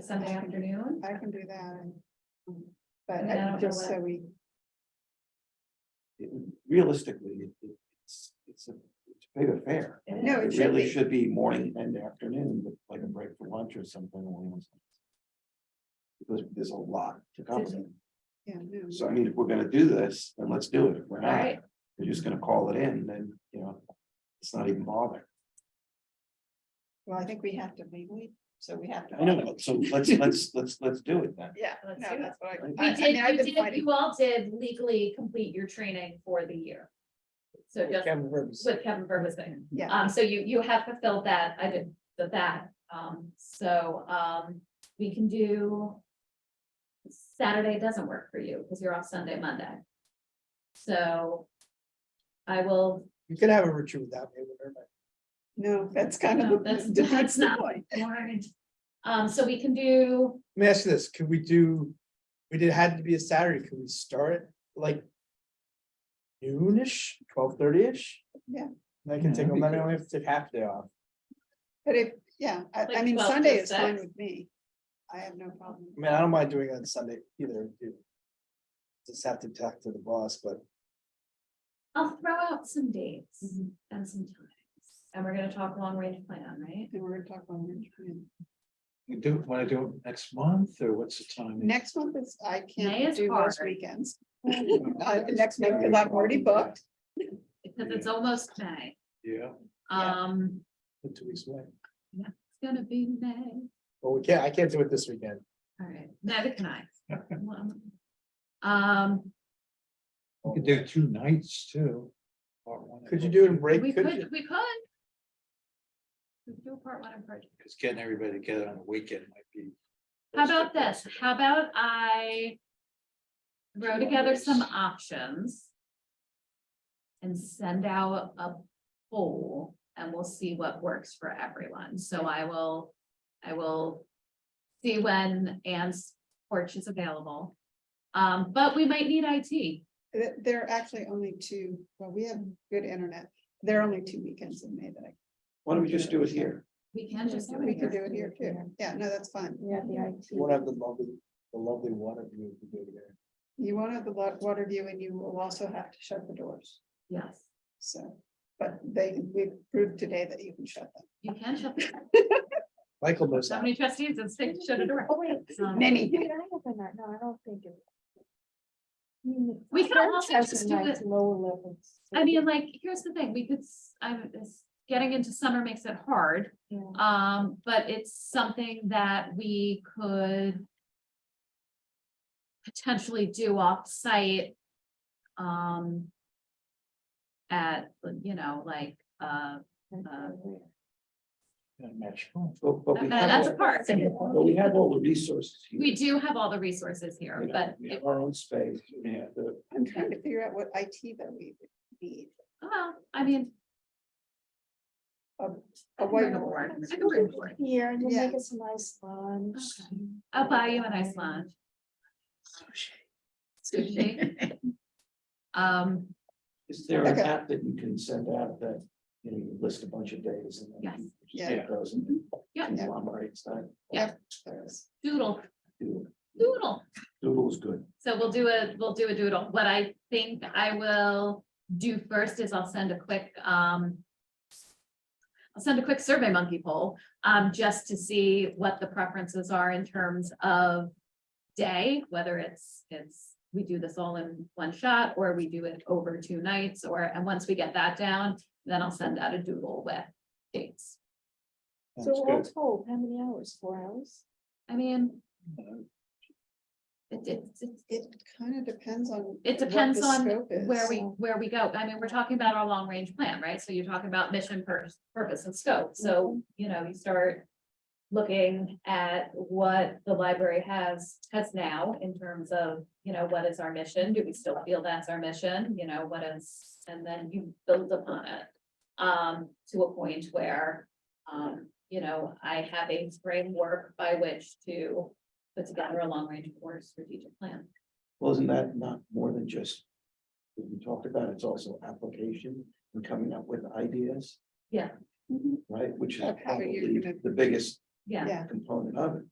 Sunday afternoon? I can do that. and- um, But mean, I I- don't know just what- so we, it- realistically, it- it- it's, it's a, it's a big affair. No, it It should really be. should be morning and afternoon, with like a break for lunch or something. along those lines. Because there's a lot to cover. yeah, no. So I mean, if we're gonna do this, then let's do it. If we're not, Alright. we're just gonna call it in, then, you know, it's not even bothering. Well, I think we have to legally, so we have to. I know, so let's, let's, let's, let's do it then. Yeah, no, Let's do it. that's what I. Uh, I- We I mean, did, I've been we did, fighting- you all did legally complete your training for the year. So just with Kevin Burbison. Yeah, Um, so you, you have fulfilled that, I did the that, um, so, um, we can do. Saturday doesn't work for you, because you're off Sunday, Monday. So. I will, You could have a retreat that way, whatever. no, that's kind of. No, the- that's- that's the not- point. um, so we can do, Let me ask you this, could we do, we did, had to be a Saturday, could we start like noonish, twelve thirty-ish? Yeah. I can Yeah, take, them, that'd then be I only have to take half day off. But if, yeah, I, I Like mean, 12 to Sunday is fine 6. with me. I have no problem. I mean, I don't mind doing it on Sunday either. dude. Just have to talk to the boss, but I'll throw out some dates Mhm. and some times, and we're gonna talk long range plan, right? And we're gonna talk about lunch. and- You do, wanna do it next month, or what's the Mm. timing? Next month is, I May can't is do those hard. weekends. Uh, Next month, because I've already booked. Because it's almost May, Yeah, Yeah. um, in two weeks away. it's gonna be May. Well, we can't, I can't do it this weekend. All right, neither can I. Um, you could do two nights too. or one Could you night. do it in break? we Could could, you? we could. We could Do a part one and part two. Cause getting everybody together on a weekend might be. How about this? How about I throw together some options and send out a poll and we'll see what works for everyone. So I will, I will see when Anne's porch is available. Um, but we might need IT. There, there are actually only two, well, we have good internet. There are only two weekends in May that I. Why don't we just do it here? We can just do We it could here. do it here too. Yeah, no, that's fine. Yeah, the We won't IT. have the lovely, the lovely water view to do there. You won't have the wa- water view and you will also have to shut the doors. Yes, So, but they, we proved today that you can shut them. you can shut, Michael knows so that. many trustees and say, shut a door. Oh, wait, Um, Many. wait, I have a night, no, I don't think it. I mean, the We could French also has just a do nice it- Lower levels. I mean, uh, like, here's the thing, we could, s- I'm, it's- getting into summer makes it hard, Yeah. um, but it's something that we could potentially do off-site, um, at, you know, like, uh, Match. point. But, but we that- Uh, that's a have, part. but we have all the resources. here, We do have all the resources here, you know, but, We it- have our own space, yeah, the, I'm trying to figure out what IT that we need. well, I mean, A I can bring a whiteboard. board, I can bring a board. Here, and we'll Yeah. make us a nice lunch. Okay. I'll buy you an ice lunch. Sushi. Um, is there an Okay. app that you can send out that, you know, you list a bunch of days and then. Yes. you just Yeah. take those and Yeah. conglomerates that. There is. doodle, Doodle. doodle. Doodle uh, is good. So we'll do a, we'll do a doodle. What I think I will do first is I'll send a quick, um. I'll send a quick survey monkey poll, um, just to see what the preferences are in terms of. Day, whether it's, it's, we do this all in one shot or we do it over two nights or, and once we get that down. Then I'll send out a doodle with dates. So Sounds all good. told, how many hours? Four hours? I mean. It, it, it's- It kind of depends on. It depends on where where we, where we go. I mean, we're talking about our long range plan, right? So you're talking about mission, pur- purpose and scope. So, you know, you start looking at what the library has, has now in terms of, you know, what is our mission? Do we still feel that's our mission? You know, what is, and then you build upon it um, to a point where, um, you know, I have a framework by which to put together a long range or strategic plan. Well, isn't that not more than just? what We talked about, it's also application and coming up with ideas, Yeah, right, which is Mhm. Of how you're probably gonna- the biggest yeah. Yeah, component of it.